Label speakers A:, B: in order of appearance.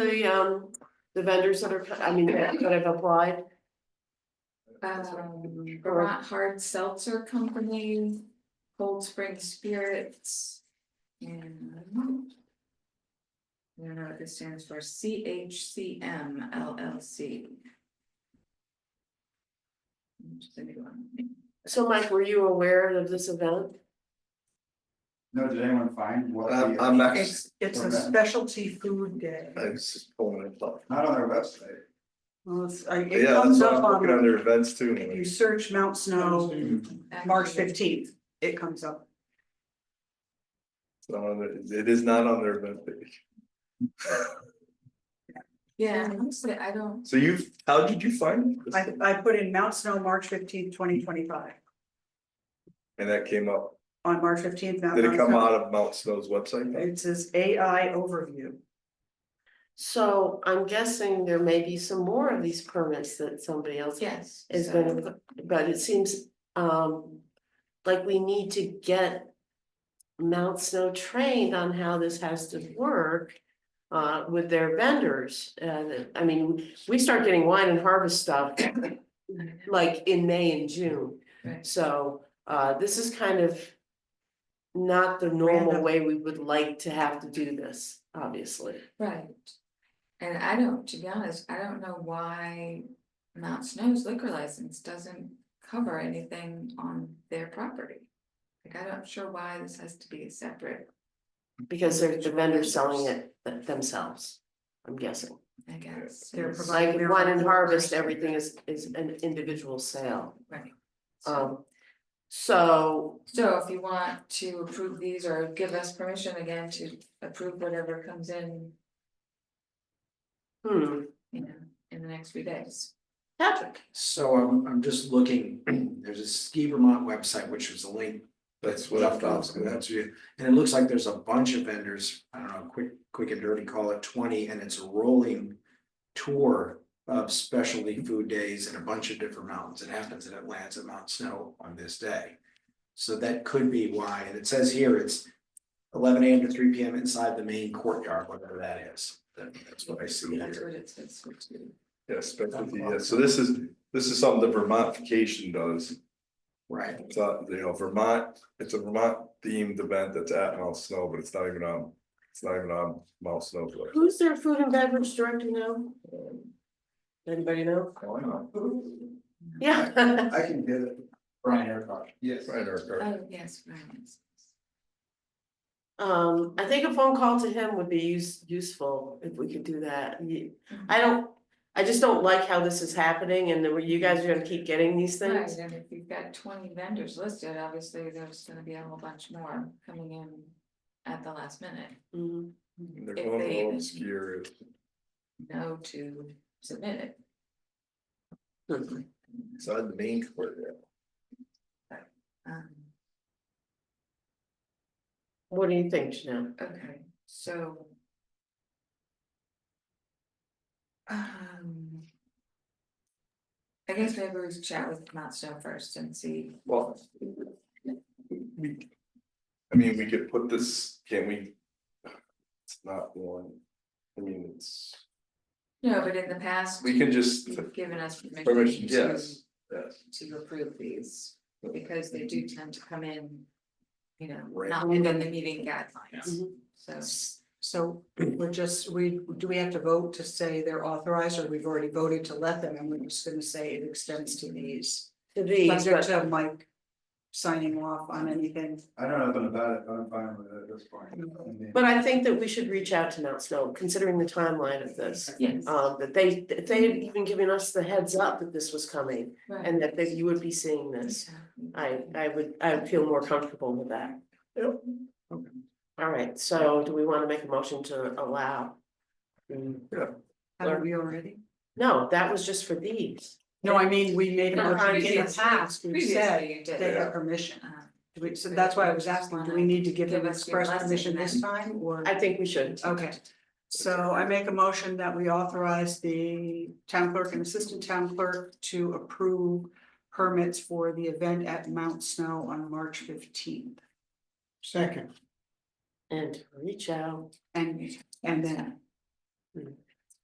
A: the, um, the vendors that are, I mean, that that have applied?
B: Um,
A: Or-
B: Vermont Hard Seltzer Company, Cold Spring Spirits. And. I don't know what this stands for, C H C M L L C. Which is a new one.
A: So Mike, were you aware of this event?
C: No, did anyone find what?
D: I'm,
C: the-
D: I'm not,
E: It's, it's a
C: Correct.
E: specialty food day.
D: I'm just pulling it up.
C: Not on their website.
E: Well, it's- I- It
D: Yeah, that's
E: comes
D: why
E: up
D: I'm
E: on,
D: looking
E: the-
D: under events too.
E: if you search Mount Snow, March fifteenth, it comes up.
D: It's not on their- It is not on their event page.
B: Yeah, honestly, I don't,
D: So you've, how did you find it?
E: I, I put in Mount Snow, March fifteenth, twenty twenty-five,
D: And that came up.
E: on March fifteenth.
D: Did it come out of Mount Snow's website?
E: It says AI overview.
A: So I'm guessing there may be some more of these permits that somebody else
B: yes.
A: is
B: so-
A: gonna, but it seems, um, like we need to get. Mount Snow trained on how this has to work, uh, with their vendors, and, I mean, we start getting wine and harvest stuff. Like in May and June,
B: Right.
A: so, uh, this is kind of. Not the normal
E: Random.
A: way we would like to have to do this, obviously.
B: Right. And I don't, to be honest, I don't know why Mount Snow's liquor license doesn't cover anything on their property. Like, I don't sure why this has to be a separate,
A: Because they're the vendors selling it th- themselves, I'm guessing.
B: I guess.
E: They're
B: It's-
E: providing-
A: Like
E: their
A: wine and
E: own
A: harvest,
E: version.
A: everything is is an individual sale.
B: Right. So-
A: Um. So,
B: So if you want to approve these or give us permission again to approve whatever comes in,
A: hmm,
B: you know, in the next few days.
A: Patrick,
F: So I'm, I'm just looking, there's a Ski Vermont website, which was a link.
D: That's what I
F: left off,
D: thought.
F: and that's you, and it looks like there's a bunch of vendors, I don't know, quick, quick and dirty, call it twenty, and it's a rolling. Tour of specialty food days in a bunch of different mountains, it happens in Atlanta, at Mount Snow on this day. So that could be why, and it says here it's eleven AM to three PM inside the main courtyard, whatever that is, That- that's what I see
B: That's
F: here.
B: what it says. which is-
D: Yeah, specialty, yeah. So this is, this is something that Vermontification does.
F: Right,
D: It's not, you know, Vermont, it's a Vermont themed event that's at Mount Snow, but it's not even on, it's not even on Mount Snow's website.
A: who's their food and beverage director now? Anybody know?
C: Oh, I know.
A: Yeah,
C: I can get it.
F: Brian Erkoff.
C: Yes.
D: Right, or-
E: Uh,
D: or-
B: Oh, yes, right.
A: um, I think a phone call to him would be use useful if we could do that. You- I don't, I just don't like how this is happening and that we- you guys are gonna keep getting these
B: Right,
A: things.
B: and if you've got twenty vendors listed, obviously there's gonna be a whole bunch more coming in at the last minute.
A: Mhm.
D: They're
B: If
D: going
B: they
D: all
B: even
D: obscure.
B: Know to submit it.
D: Inside the main court, yeah.
B: Um,
A: What do you think, Janelle?
B: okay, so. Um. I guess maybe we should chat with Mount Snow first and see.
D: Well. we- I mean, we could put this, can we? It's not one, I mean, it's,
B: No, but in the past,
D: we can just,
B: you've given us permission.
D: permission,
B: to-
D: yes, yes.
B: To approve these, because they do tend to come in. You know,
D: Right.
B: not within the meeting guidelines,
A: Mhm.
B: so.
E: Mm-hmm. So we're just, we, do we have to vote to say they're authorized, or we've already voted to let them, and we're just gonna say it extends to these?
A: To these,
E: Subject
A: but
E: to Mike signing off on anything.
C: I don't know nothing about it, but I'm fine with it at this point. I mean,
A: But I think that we should reach out to Mount Snow, considering the timeline of this.
B: Yes.
A: Um, that they, that they had even given us the heads up that this was coming and that, that you would be seeing this. I, I would, I would feel more comfortable with that.
D: Yep.
A: All right, so do we want to make a motion to allow?
E: Have we already?
A: No, that was just for these.
E: No, I mean, we made a
A: No,
E: motion in the
B: previously-
E: past, we said
B: Previously you
E: they
B: did.
E: have permission.
B: Uh,
E: Do we, so that's why I was asking, do we need to give them
B: Give us your
E: express
B: blessing
E: permission
B: then.
E: this time, or?
A: I think we should.
E: Okay, so I make a motion that we authorize the town clerk and assistant town clerk to approve permits for the event at Mount Snow on March fifteenth.
F: Second.
A: And reach out.
E: And, and then,
A: Mhm.